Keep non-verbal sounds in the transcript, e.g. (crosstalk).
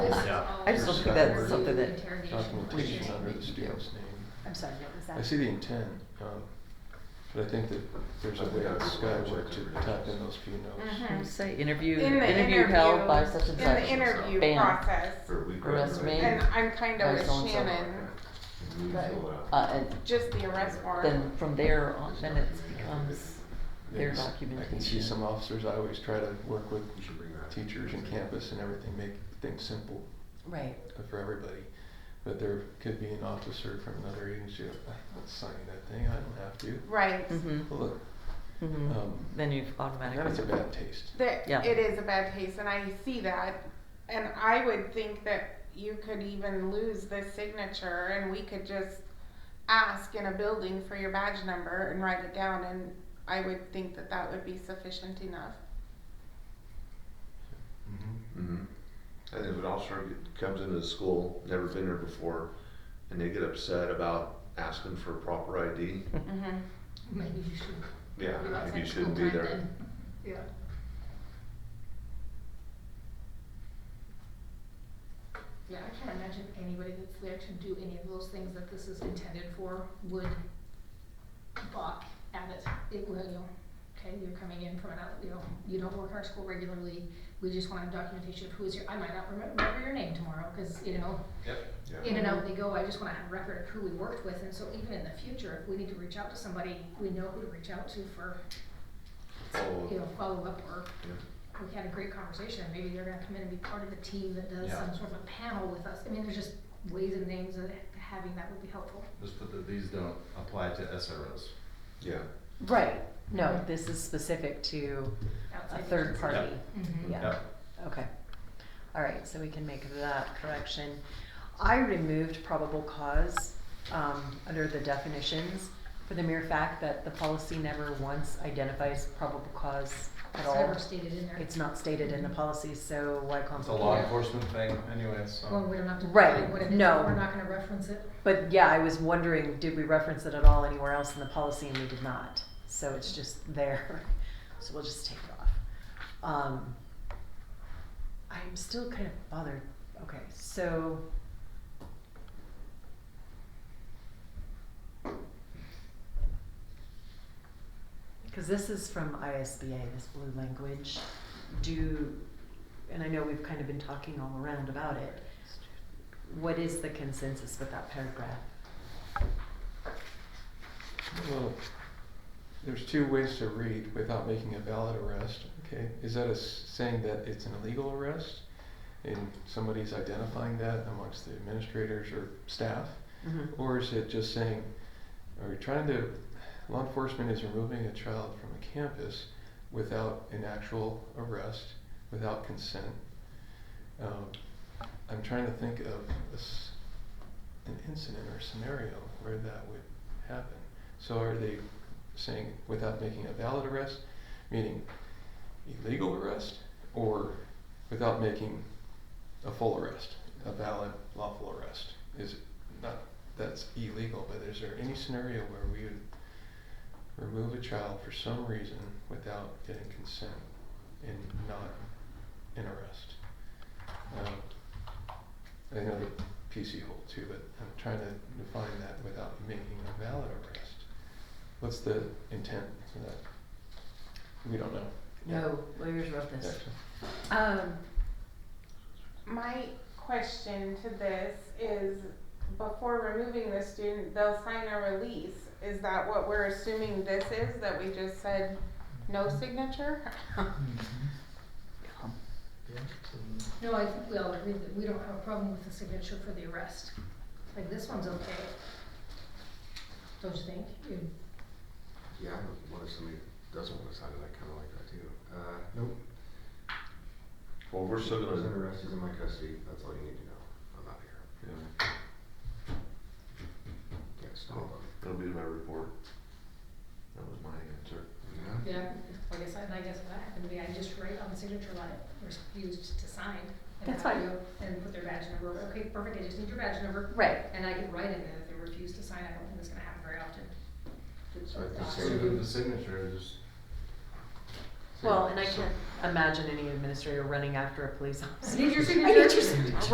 I just don't think that's something that- Documentation under the student's name. I'm sorry, what was that? I see the intent, um, but I think that there's a way at Skyway to tap in those few notes. Mm-hmm. Mhm. You Say interview, In the interview held by such and in such. the interview Bam. process. For a week. Arrest right? me. And I'm kind By of with so and so. Shannon, And we but- fill out. Uh, and just the arrest then warrant. from there on, then it becomes their Yes, I can see documentation. some officers, I always try to work with You should bring that. teachers and campus and everything, make things simple Right. for everybody. But there could be an officer from another agency, I'm not signing that thing, I don't have to. Right. Mm-hmm, Well, Look, mm-hmm. um, Then you've automatically. that is a bad taste. That Yeah. it is a bad taste, and I see that. And I would think that you could even lose this signature, and we could just ask in a building for your badge number and write it down. And I would think that that would be sufficient enough. Mhm. And if an officer g- comes into the school, never been there before, and they get upset about asking for (laughs) proper ID, Mm-hmm. Maybe you should. yeah, go outside maybe you the shouldn't school be time there. then. Yeah. Yeah, I can't imagine anybody that's there to do any of those things that this is intended for would balk at it. It will, you know, okay, you're coming in from another, you know, you don't work in our school regularly. We just want documentation of who is your, I might not remem- remember your name tomorrow, cause you know, in and out they go, I just wanna have a record of who we worked with, and so even in the future, if we need to reach out to somebody, we know who to reach out to for, Follow up. you know, follow up, or Yeah. we had a great conversation, maybe they're gonna come in and be part of the team that does Yeah. some sort of a panel with us, I mean, there's just ways and names of having that would be helpful. Just put that these don't apply to SROs. Yeah. Right, no, this is specific to a Outside third agencies. party. Mhm. Yeah, Yep. okay. All right, so we can make that correction. I removed probable cause um, under the definitions for the mere fact that the policy never once identifies probable cause at It's all. never stated in there. It's not stated in the policy, so why It's a law complicate it? enforcement thing anyway, so. Well, we don't have to Right, define what it is, no. we're not gonna reference it. But yeah, I was wondering, did we reference it at all anywhere else in the policy, and we did not. So it's just there, (laughs) so we'll just take it off. Um, I'm still kind of bothered, okay, so. Cause this is from ISBA, this blue language, do, and I know we've kind of been talking all around about it. What is the consensus with that paragraph? Well, there's two ways to read without making a valid arrest, okay? Is that a s- saying that it's an illegal arrest? And somebody's identifying that amongst the administrators or staff? Or is it just saying, are we trying to, law enforcement is removing a child from a campus without an actual arrest, without consent? Um, I'm trying to think of a s an incident or scenario where that would happen. So are they saying without making a valid arrest, meaning illegal arrest, or without making a full arrest, a valid lawful arrest? Is not that's illegal, but is there any scenario where we would remove a child for some reason without getting consent and not an arrest? Um, I know the PC hold too, but I'm trying to define that without making a valid arrest. What's the intent for that? We don't know. No, lawyers wrote this. Actually. Um, My question to this is, before removing the student, they'll sign a release. Is that what we're assuming this is, that we just said no signature? (laughs) No, I think we all agree that we don't have a problem with the signature for the arrest. Like, this one's okay. Don't you think? You- Yeah, what if somebody doesn't wanna sign it, I kinda like that too. Uh, Nope, Well, we're still was under gonna, arrest, he's in my custody, that's all you need to know, I'm out of here, yeah, can't stop him. that'll be my report. That was my answer. Yeah. Yeah, I guess, I- and I guess what happened to me, I just write on the signature line, refused to sign. and That's have fine. you- And put their badge number, okay, perfect, I just need your badge number, right, and I can write in there that they refuse to sign, I don't think that's gonna happen very often. So I can So say with the signature is, well, and I can't imagine any administrator running after a police officer. Need your (laughs) I need your signature. signature.